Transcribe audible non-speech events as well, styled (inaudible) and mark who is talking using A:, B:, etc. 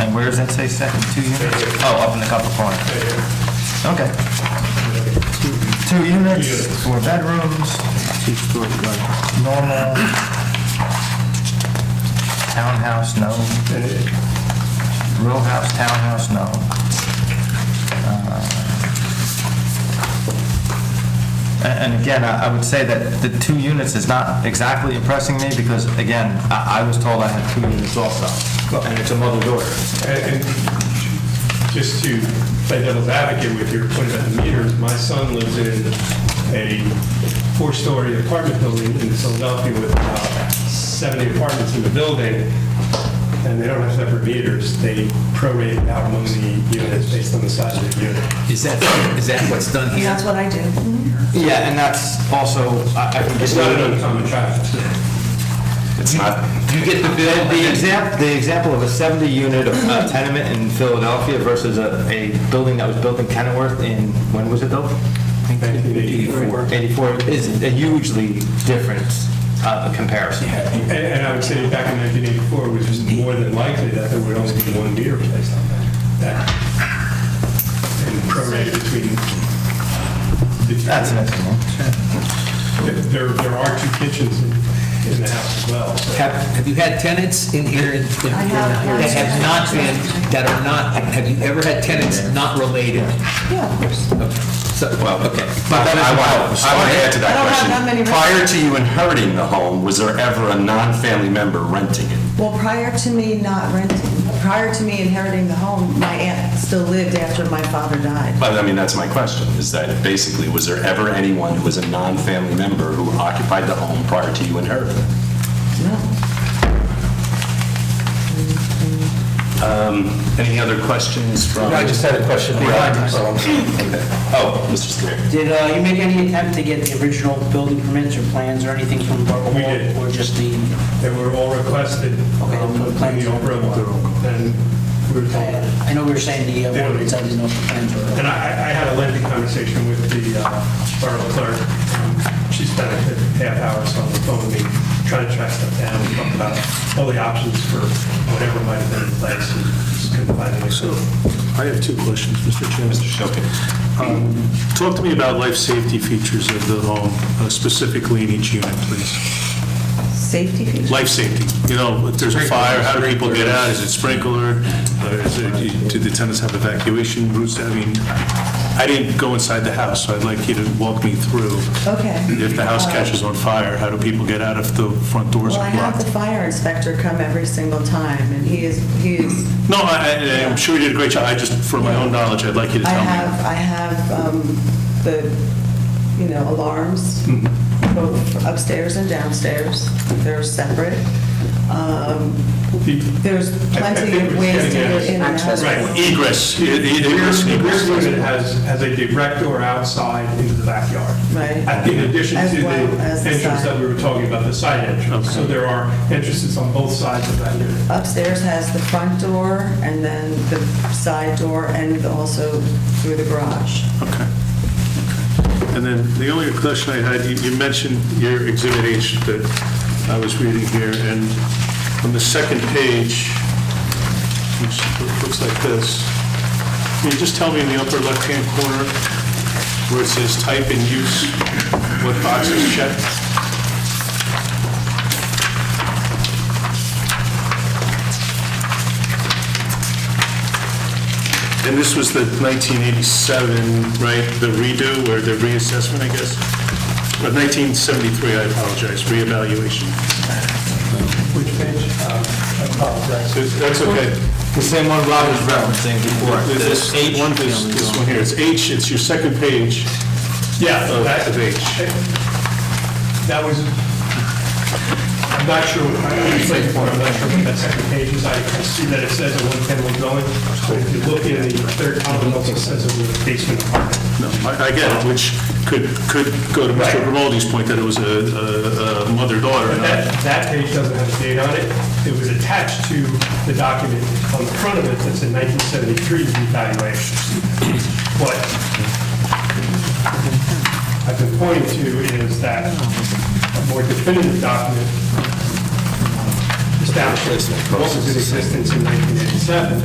A: And where does that say second, two units? Oh, up in the upper corner. Okay. Two units, four bedrooms,
B: Two-story garage.
A: normal. Townhouse, no. Row house, townhouse, no. Uh, a- And again, I I would say that the two units is not exactly impressing me because, again, I I was told I had two units also. And it's a mother daughter.
C: And and just to play devil's advocate with your point about the meters, my son lives in a four-story apartment building in Philadelphia with about 70 apartments in the building, and they don't have separate meters. They prorate out among the units based on the size of the unit.
D: Is that, is that what's done
E: And
D: here?
E: that's what I do.
A: Yeah, and that's also, I I can get
C: It's not an uncommon practice.
D: It's not. You get the bill,
A: The example, the example of a 70-unit tenement in Philadelphia versus a, a building that was built in Kenilworth in, when was it built?
C: 1984.
A: 84, is a hugely different uh, comparison.
C: And and I would say back in 1984, it was just more than likely that there would only be one meter placed on that. that- And prorated between. the two.
A: That's an estimate.
C: There, there are two kitchens in, in the house as well. so-
D: Have, have you had tenants in here in- in-
E: I have.
D: that have not been, that are not, have you ever had tenants not related?
E: Yeah, of course.
D: So, well, okay.
F: But I want, I want to add to
E: I
F: that
E: don't have
F: question.
E: that many
F: Prior to you inheriting the home, was there ever a non-family member renting it?
E: Well, prior to me not renting, prior to me inheriting the home, my aunt still lived after my father died.
F: But I mean, that's my question, is that basically, was there ever anyone who was a non-family member who occupied the home prior to you inheriting it?
E: No.
F: Any other questions from?
D: I just had a question.
F: (laughs) Oh, Mr. Scudery.
G: Did uh, you make any attempt to get the original building permits or plans or anything from Borough
C: We did.
G: Or just the,
C: They were all requested
G: Okay,
C: um,
G: the
C: in
G: plans.
C: the Oprah one, and we were told.
G: I know we were saying the uh,
C: They don't-
G: ordinance, I didn't know if the plans were.
C: And I, I had a lengthy conversation with the uh, borough clerk. Um, She spent a good half hour or so on the phone with me, trying to track stuff down, and talk about all the options for whatever might have been in place. and just Couldn't find any.
H: So I have two questions, Mr. Chairman.
F: Mr. Shokey.
H: Um, Talk to me about life safety features of the home, uh, specifically in each unit, please.
E: Safety features.
H: Life safety, you know, if there's a fire, how do people get out? Is it sprinkler? Or is it- Do the tenants have evacuation routes? I mean, I didn't go inside the house, so I'd like you to walk me through.
E: Okay.
H: If the house catches on fire, how do people get out if the front doors
E: Well, I
H: are
E: have
H: blocked?
E: the fire inspector come every single time, and he is, he is
H: No, I- I- I'm sure you did a great job, I just, for my own knowledge, I'd like you to
E: I
H: tell me.
E: have, I have um, the, you know, alarms,
C: Mm-hmm.
E: both upstairs and downstairs. They're separate. Um, There's
C: I- I
E: plenty
C: think
E: of
C: we're
E: ways to
C: getting at
E: get in and out.
G: access
C: Right.
H: Egress, e- e- egress,
C: Rear
H: egress.
C: rear unit has, has a direct door outside into the backyard.
E: Right.
C: At- In addition
E: As
C: to the
E: well as the
C: entrance
E: side.
C: that we were talking about, the side entrance. So there are entrances on both sides of that unit.
E: Upstairs has the front door and then the side door and also through the garage.
H: Okay. And then the only question I had, you- you mentioned your Exhibit H that I was reading here, and on the second page, which looks like this, can you just tell me in the upper left-hand corner where it says type and use, what box is checked? And this was the 1987, right, the redo or the reassessment, I guess? Or 1973, I apologize, reevaluation.
C: Which page? Uh, I apologize.
H: That's that's okay.
A: The same one Rob was referencing before.
H: This
A: The
H: one, this this one here, it's H, it's your second page
C: Yeah,
H: of
C: that-
H: of H.
C: That was, I'm not sure, what- I'm not sure what that second page is. I I see that it says a one-family dwelling. but If you look in the third column, it also says it was a basement apartment.
H: No, I I get it, which could, could go to Mr.
C: Right.
H: Grimaldi's point that it was a- a a mother-daughter.
C: But
H: not-
C: that, that page doesn't have a date on it. It was attached to the document on the front of it that's in 1973 evaluation. What I've been pointing to is that a more definitive document establishes what was in existence in 1987